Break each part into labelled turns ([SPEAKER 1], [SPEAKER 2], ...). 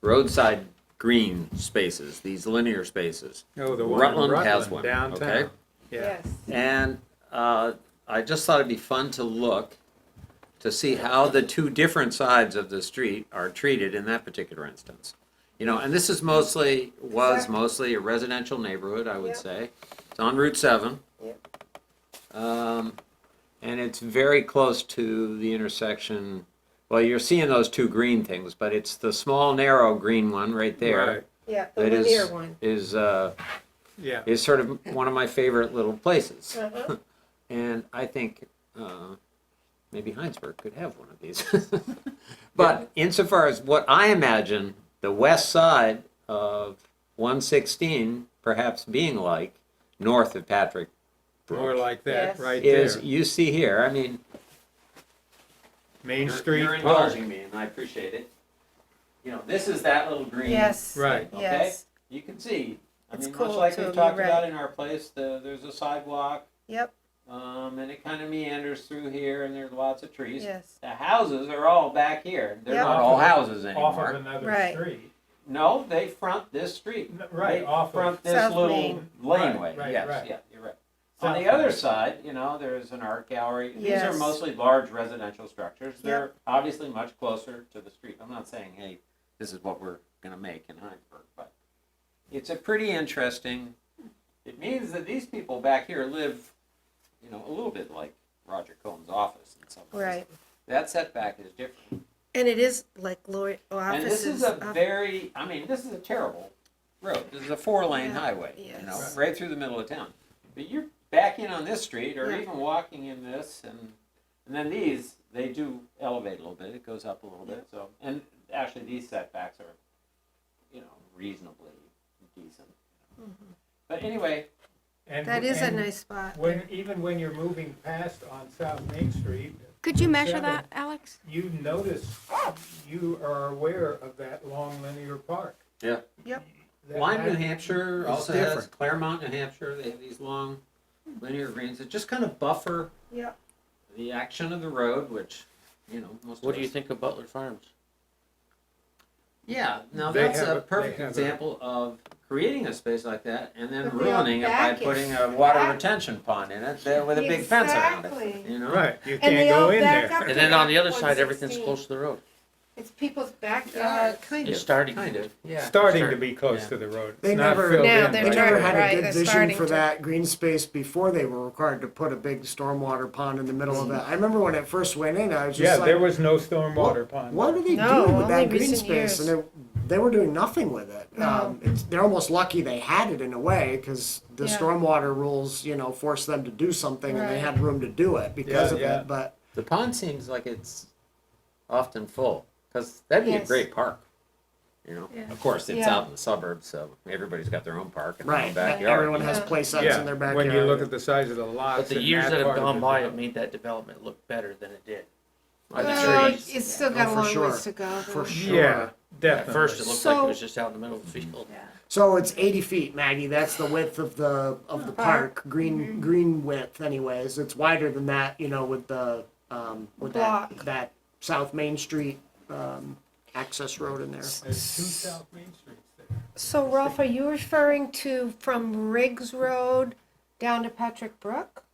[SPEAKER 1] roadside green spaces, these linear spaces.
[SPEAKER 2] No, Oh, the one in
[SPEAKER 1] Rutland has one,
[SPEAKER 2] Rutland downtown.
[SPEAKER 1] okay?
[SPEAKER 2] Yeah,
[SPEAKER 1] And uh, I just thought it'd be fun to look to see how the two different sides of the street are treated in that particular instance. You know, and this is mostly, was
[SPEAKER 3] Exactly.
[SPEAKER 1] mostly a residential neighborhood, I would
[SPEAKER 3] Yep.
[SPEAKER 1] say. It's on Route 7. Um, And it's very close to the intersection, well, you're seeing those two green things, but it's the small, narrow green one right
[SPEAKER 2] Right.
[SPEAKER 1] there
[SPEAKER 3] Yeah, the
[SPEAKER 1] It is-
[SPEAKER 3] linear one.
[SPEAKER 1] is, uh,
[SPEAKER 2] yeah.
[SPEAKER 1] is sort of one of my favorite little places.
[SPEAKER 3] Uh-huh.
[SPEAKER 1] And I think uh, maybe Heinsberg could have one of these. but insofar as what I imagine the west side of 116 perhaps being like north of Patrick
[SPEAKER 2] More
[SPEAKER 1] Brook
[SPEAKER 2] like that,
[SPEAKER 3] Yes.
[SPEAKER 2] right
[SPEAKER 1] is
[SPEAKER 2] there.
[SPEAKER 1] you see here. I mean,
[SPEAKER 2] Main
[SPEAKER 1] you're-
[SPEAKER 2] Street.
[SPEAKER 1] You're indulging me, and I appreciate it. You know, this is that little green.
[SPEAKER 3] Yes.
[SPEAKER 2] Right.
[SPEAKER 1] Okay.
[SPEAKER 3] Yes.
[SPEAKER 1] You can see. I
[SPEAKER 3] It's
[SPEAKER 1] mean, much
[SPEAKER 3] cool,
[SPEAKER 1] like
[SPEAKER 3] too,
[SPEAKER 1] we
[SPEAKER 3] you're
[SPEAKER 1] talked
[SPEAKER 3] right.
[SPEAKER 1] about in our place, the, there's a sidewalk.
[SPEAKER 3] Yep.
[SPEAKER 1] Um, and it kind of meanders through here, and there's lots of trees.
[SPEAKER 3] Yes.
[SPEAKER 1] The houses are all back here. They're
[SPEAKER 3] Yep.
[SPEAKER 1] not all houses
[SPEAKER 2] Off of
[SPEAKER 1] anymore.
[SPEAKER 2] another
[SPEAKER 3] Right.
[SPEAKER 2] street.
[SPEAKER 1] No, they front this street.
[SPEAKER 2] N- Right,
[SPEAKER 1] They
[SPEAKER 2] off of,
[SPEAKER 1] front this
[SPEAKER 3] South
[SPEAKER 1] little
[SPEAKER 3] Main.
[SPEAKER 1] laneway.
[SPEAKER 2] Right, right,
[SPEAKER 1] yes,
[SPEAKER 2] right.
[SPEAKER 1] yeah, you're right.
[SPEAKER 2] South
[SPEAKER 1] On the
[SPEAKER 2] Main.
[SPEAKER 1] other side, you know, there's an art gallery. These are
[SPEAKER 3] Yes.
[SPEAKER 1] mostly large residential structures. They're obviously much closer to the street. I'm not saying, hey, this is what we're going to make in Heinsberg, but it's a pretty interesting. It means that these people back here live, you know, a little bit like Roger Cohen's office in some ways.
[SPEAKER 3] Right.
[SPEAKER 1] That setback is different.
[SPEAKER 3] And it is like lawyer offices.
[SPEAKER 1] And this is a
[SPEAKER 3] off-
[SPEAKER 1] very, I mean, this is a terrible road. This is a four-lane
[SPEAKER 3] Yeah,
[SPEAKER 1] highway, you know,
[SPEAKER 3] yes.
[SPEAKER 1] right through the middle of town. But you're backing on this street or
[SPEAKER 3] Yeah.
[SPEAKER 1] even walking in this and, and then these, they do elevate a little bit. It goes up a little bit, so. And actually, these setbacks are, you know, reasonably decent.
[SPEAKER 3] Mm-hmm.
[SPEAKER 1] But anyway,
[SPEAKER 2] and-
[SPEAKER 3] That is a
[SPEAKER 2] and
[SPEAKER 3] nice spot.
[SPEAKER 2] When, even when you're moving past on South Main Street,
[SPEAKER 4] Could you measure
[SPEAKER 2] Seven.
[SPEAKER 4] that, Alex?
[SPEAKER 2] you notice, you are aware of that long linear park.
[SPEAKER 1] Yeah.
[SPEAKER 3] Yep.
[SPEAKER 2] That-
[SPEAKER 1] Lyme, New
[SPEAKER 2] that-
[SPEAKER 1] Hampshire
[SPEAKER 2] It's
[SPEAKER 1] also has
[SPEAKER 2] different.
[SPEAKER 1] Claremont, New Hampshire, they have these long linear greens that just kind of buffer
[SPEAKER 3] Yeah.
[SPEAKER 1] the action of the road, which, you know, most
[SPEAKER 5] What
[SPEAKER 1] of
[SPEAKER 5] do you
[SPEAKER 1] us-
[SPEAKER 5] think of Butler Farms?
[SPEAKER 1] Yeah, now
[SPEAKER 2] They
[SPEAKER 1] that's
[SPEAKER 2] have
[SPEAKER 1] a
[SPEAKER 2] a-
[SPEAKER 1] perfect
[SPEAKER 2] they have a-
[SPEAKER 1] example of creating a space like that and then
[SPEAKER 3] But the
[SPEAKER 1] ruining it by
[SPEAKER 3] back is-
[SPEAKER 1] putting a water
[SPEAKER 3] back-
[SPEAKER 1] retention pond in it there with a big fence around it.
[SPEAKER 3] Exactly.
[SPEAKER 1] You know,
[SPEAKER 2] Right, you
[SPEAKER 3] And
[SPEAKER 2] can't
[SPEAKER 3] they all
[SPEAKER 2] go in
[SPEAKER 3] back
[SPEAKER 2] there.
[SPEAKER 3] up.
[SPEAKER 5] And then on the other side,
[SPEAKER 3] 116.
[SPEAKER 5] everything's close to the road.
[SPEAKER 3] It's people's
[SPEAKER 1] Uh,
[SPEAKER 3] backyards.
[SPEAKER 1] kind of,
[SPEAKER 5] It's starting
[SPEAKER 1] kind of, yeah.
[SPEAKER 2] Starting
[SPEAKER 5] Sure.
[SPEAKER 2] to be close
[SPEAKER 5] Yeah.
[SPEAKER 2] to the road. It's
[SPEAKER 6] They
[SPEAKER 2] not
[SPEAKER 6] never-
[SPEAKER 2] filled
[SPEAKER 3] No,
[SPEAKER 2] in
[SPEAKER 3] they're
[SPEAKER 2] right
[SPEAKER 6] They
[SPEAKER 3] not-
[SPEAKER 6] never
[SPEAKER 2] now.
[SPEAKER 6] had
[SPEAKER 3] right,
[SPEAKER 6] a
[SPEAKER 3] they're
[SPEAKER 6] good vision
[SPEAKER 3] starting
[SPEAKER 6] for
[SPEAKER 3] to.
[SPEAKER 6] that green space before they were required to put a big stormwater pond in the middle of it. I remember when it first went in, I was
[SPEAKER 2] Yeah,
[SPEAKER 6] just
[SPEAKER 2] there
[SPEAKER 6] like,
[SPEAKER 2] was no stormwater pond.
[SPEAKER 6] what are they
[SPEAKER 3] No,
[SPEAKER 6] doing with
[SPEAKER 3] only
[SPEAKER 6] that green
[SPEAKER 3] recent
[SPEAKER 6] space?
[SPEAKER 3] years.
[SPEAKER 6] And they, they were doing nothing with it. Um, it's, they're almost lucky they had it in a way, because the
[SPEAKER 3] Yeah.
[SPEAKER 6] stormwater rules, you know, forced them to do something and they
[SPEAKER 3] Right.
[SPEAKER 6] had room to do it because
[SPEAKER 2] Yeah,
[SPEAKER 6] of
[SPEAKER 2] yeah.
[SPEAKER 6] it, but
[SPEAKER 1] The pond seems like it's often full because that'd be a
[SPEAKER 3] Yes.
[SPEAKER 1] great park. You know,
[SPEAKER 3] Yeah.
[SPEAKER 1] of course it's
[SPEAKER 3] Yeah.
[SPEAKER 1] out in the suburbs, so everybody's got their own park and
[SPEAKER 6] right, e-,
[SPEAKER 1] their own backyard.
[SPEAKER 6] everyone has
[SPEAKER 3] Yeah.
[SPEAKER 6] play sets
[SPEAKER 2] Yeah,
[SPEAKER 6] in their
[SPEAKER 2] when you look at
[SPEAKER 6] backyard.
[SPEAKER 2] the size of the lots.
[SPEAKER 5] But the
[SPEAKER 2] in
[SPEAKER 5] years
[SPEAKER 2] that
[SPEAKER 5] that have
[SPEAKER 2] part of
[SPEAKER 5] gone
[SPEAKER 2] the
[SPEAKER 5] by,
[SPEAKER 2] development.
[SPEAKER 5] it made that development look better than it did. By the
[SPEAKER 3] Well,
[SPEAKER 5] trees.
[SPEAKER 3] it's still
[SPEAKER 6] Oh,
[SPEAKER 3] got a
[SPEAKER 6] for
[SPEAKER 3] long
[SPEAKER 6] sure.
[SPEAKER 3] ways to go.
[SPEAKER 6] For
[SPEAKER 3] though.
[SPEAKER 6] sure.
[SPEAKER 2] Yeah,
[SPEAKER 5] At
[SPEAKER 2] definitely.
[SPEAKER 5] first, it looked like it
[SPEAKER 3] So-
[SPEAKER 5] was just out in the middle of the field.
[SPEAKER 6] So it's eighty feet, Maggie. That's the width of the of the park, Mm-hmm. green green width. Anyways, it's wider than that. You know, with the um, with
[SPEAKER 3] Block.
[SPEAKER 6] that that South Main Street um, access road in there.
[SPEAKER 2] There's two South Main Streets there.
[SPEAKER 3] So Ralph, are you referring to from Riggs Road down to Patrick Brook?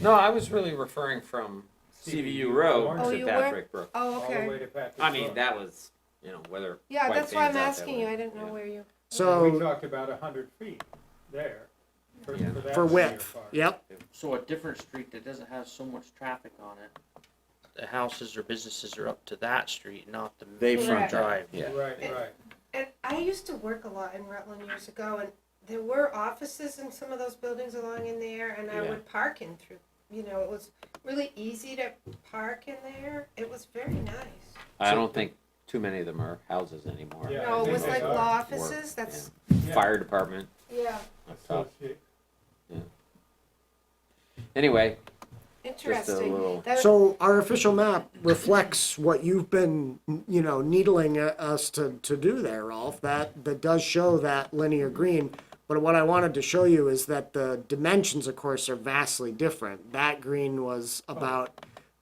[SPEAKER 1] No, I was really referring from CVU Road
[SPEAKER 2] Oh,
[SPEAKER 1] to
[SPEAKER 3] you were?
[SPEAKER 1] Patrick Brook.
[SPEAKER 3] Oh,
[SPEAKER 2] All the way
[SPEAKER 3] okay.
[SPEAKER 2] to Patrick
[SPEAKER 1] I mean,
[SPEAKER 2] Brook.
[SPEAKER 1] that was, you know, whether.
[SPEAKER 3] Yeah,
[SPEAKER 1] quite
[SPEAKER 3] that's why
[SPEAKER 1] things
[SPEAKER 3] I'm
[SPEAKER 1] out that
[SPEAKER 3] asking you.
[SPEAKER 1] way.
[SPEAKER 3] I didn't know
[SPEAKER 1] Yeah.
[SPEAKER 3] where you.
[SPEAKER 2] We
[SPEAKER 6] So
[SPEAKER 2] talked about a hundred feet there. for-
[SPEAKER 1] Yeah.
[SPEAKER 2] that
[SPEAKER 6] for
[SPEAKER 2] linear
[SPEAKER 6] width,
[SPEAKER 2] park.
[SPEAKER 6] yep,
[SPEAKER 5] So a different street that doesn't have so much traffic on it, the houses or businesses are up to that street, not the
[SPEAKER 1] They
[SPEAKER 5] main
[SPEAKER 3] front
[SPEAKER 5] drive.
[SPEAKER 1] Yeah.
[SPEAKER 2] Right, right.
[SPEAKER 3] And I used to work a lot in Rutland years ago, and there were offices in some of those buildings along in there, and I
[SPEAKER 1] Yeah.
[SPEAKER 3] would park in through. You know, it was really easy to park in there. It was very nice.
[SPEAKER 1] I don't think too many of them are houses anymore.
[SPEAKER 2] Yeah,
[SPEAKER 3] no,
[SPEAKER 2] I
[SPEAKER 3] it
[SPEAKER 2] think
[SPEAKER 3] was
[SPEAKER 2] they
[SPEAKER 3] like
[SPEAKER 2] are.
[SPEAKER 3] law offices. That's
[SPEAKER 2] Yeah.
[SPEAKER 1] Fire department
[SPEAKER 3] yeah,
[SPEAKER 1] up top.
[SPEAKER 2] Associate-
[SPEAKER 1] Anyway, just a
[SPEAKER 3] interesting.
[SPEAKER 1] little.
[SPEAKER 3] That-
[SPEAKER 6] So our official map reflects what you've been, you know, needling at us to, to do there, Rolf. That, that does show that linear green. But what I wanted to show you is that the dimensions, of course, are vastly different. That green was about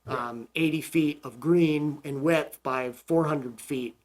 [SPEAKER 6] um, 80 feet of green in width by 400 feet